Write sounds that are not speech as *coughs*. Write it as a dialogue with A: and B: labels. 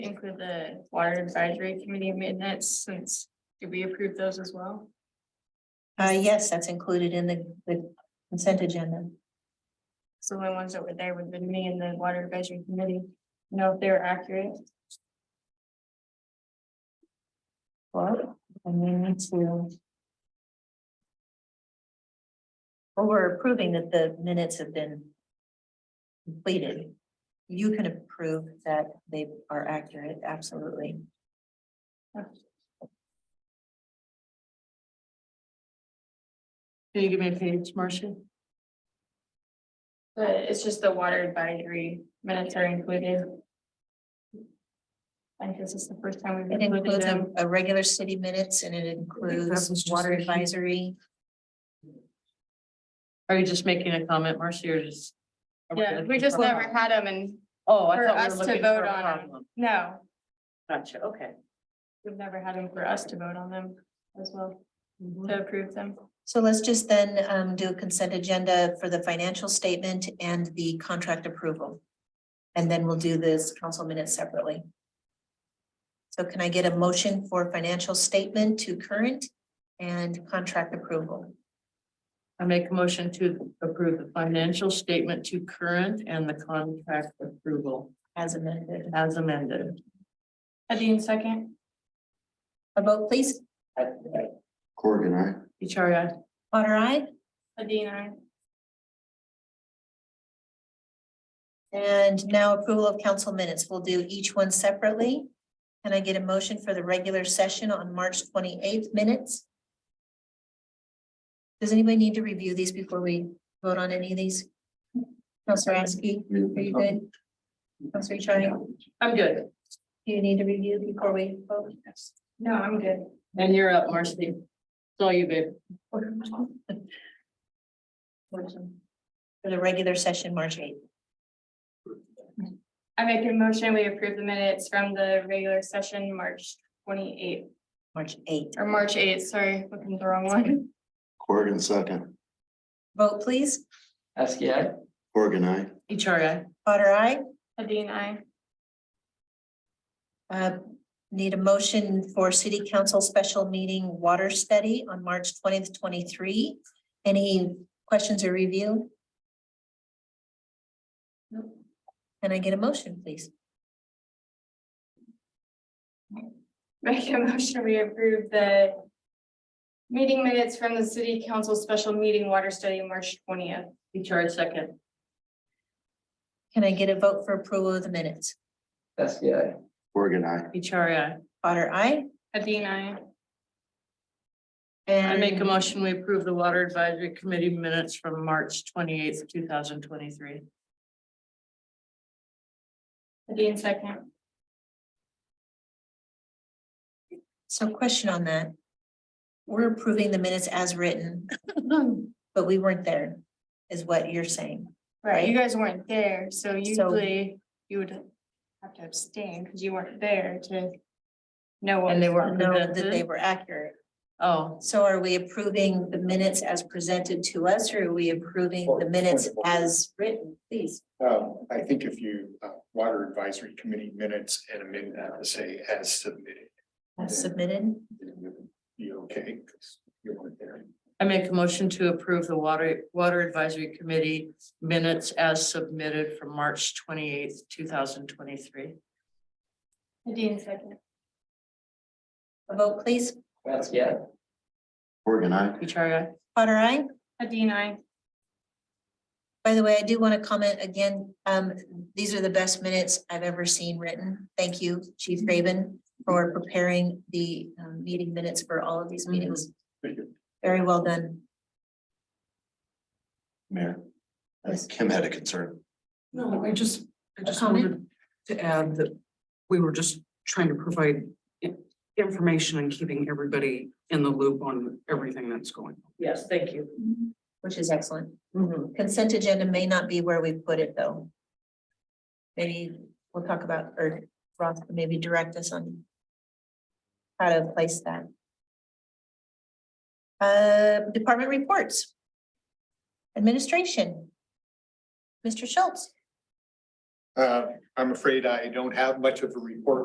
A: include the water advisory committee minutes since, did we approve those as well?
B: Uh, yes, that's included in the, the consent agenda.
A: So the ones that were there would have been me and the water advisory committee, know if they're accurate.
B: Well, and we need to. Well, we're approving that the minutes have been completed. You can approve that they are accurate, absolutely.
C: Can you give me a page, Marcia?
A: But it's just the water advisory minutes are included. I guess it's the first time we've
B: It
A: included
B: includes a,
A: them.
B: a regular city minutes and it includes
C: was just
B: water
C: a huge-
B: advisory.
C: Are you just making a comment, Marcia, or just? are
A: Yeah, we
C: looking
A: just
C: for-
A: never had them and
C: Oh, I
A: for
C: thought we
A: us
C: were
A: to
C: looking
A: vote
C: for a
A: on 'em.
C: problem.
A: no,
C: Gotcha, okay.
A: we've never had them for us to vote on them as well,
C: Mhm.
A: to approve them.
B: So let's just then, um, do a consent agenda for the financial statement and the contract approval. And then we'll do this council minutes separately. So can I get a motion for financial statement to current and contract approval?
C: I make a motion to approve the financial statement to current and the contract approval
B: As amended,
C: as amended.
A: Adine second,
B: a vote please,
D: Corgan, I.
C: HRI,
B: Otter eye,
A: Adine I.
B: and now approval of council minutes, we'll do each one separately. Can I get a motion for the regular session on March twenty-eighth minutes? Does anybody need to review these before we vote on any of these? Counselor Askey, are you good? Counselor Chang,
C: I'm good.
B: do you need to review before we vote?
A: No, I'm good.
C: And you're up, Marcia. It's all you, babe.
B: For the regular session, March eighth.
A: I make a motion, we approve the minutes from the regular session, March twenty-eighth,
B: March eighth.
A: or March eighth, sorry, looking at the wrong one. *laughs*
D: Corgan, second.
B: Vote please.
E: Askey, I.
D: Corgan, I.
C: HRI,
B: Otter eye.
A: Adine I.
B: Uh, Need a motion for city council special meeting water study on March twentieth, twenty-three. Any questions or review? Can I get a motion, please?
A: Make a motion, we approve the meeting minutes from the city council special meeting water study, March twentieth.
C: HRI second.
B: Can I get a vote for approval of the minutes?
E: Askey, I.
D: Corgan, I.
C: HRI,
B: Otter, I.
A: Adine I.
C: I make a motion, we approve the water advisory committee minutes from March twenty-eighth, two thousand twenty-three.
A: Adine second.
B: So question on that. We're approving the minutes as
A: *coughs*
B: written, but we weren't there, is what you're saying.
A: Right, you guys weren't there, so usually you would have to abstain because you weren't there to know what.
C: And they
A: was
C: weren't
A: on
B: Know
A: the-
B: that they were accurate.
C: Oh,
B: So are we approving the minutes as presented to us, or are we approving the minutes as written, please?
F: Um, I think if you, uh, water advisory committee minutes and amend that to say as submitted,
B: As submitted?
F: you okay? 'Cause You weren't there.
C: I make a motion to approve the water, water advisory committee minutes as submitted from March twenty-eighth, two thousand twenty-three.
A: Adine second.
B: A vote, please.
E: Askey, I.
D: Corgan, I.
C: HRI,
B: Potter, I.
A: Adine I.
B: By the way, I do want to comment again, um, these are the best minutes I've ever seen written. Thank you,
F: Mm-hmm.
B: Chief Raven, for preparing the um, meeting minutes for all of these meetings.
F: Mm-hmm. Thank you.
B: Very well done.
D: Mayor. I
B: Yes.
D: think Kim had a concern.
G: No, I just, I just
B: comment?
G: wanted to add that we were just trying to provide i- information and keeping everybody in the loop on everything that's going. on.
C: yes, thank you. Mm-hmm.
B: Which is excellent. Consent agenda may not be where we put it, though. Maybe we'll talk about, or Ross, can maybe direct us on how to place that. Uh, department reports. Administration. Mr. Schultz.
F: Uh, I'm afraid I don't have much of a report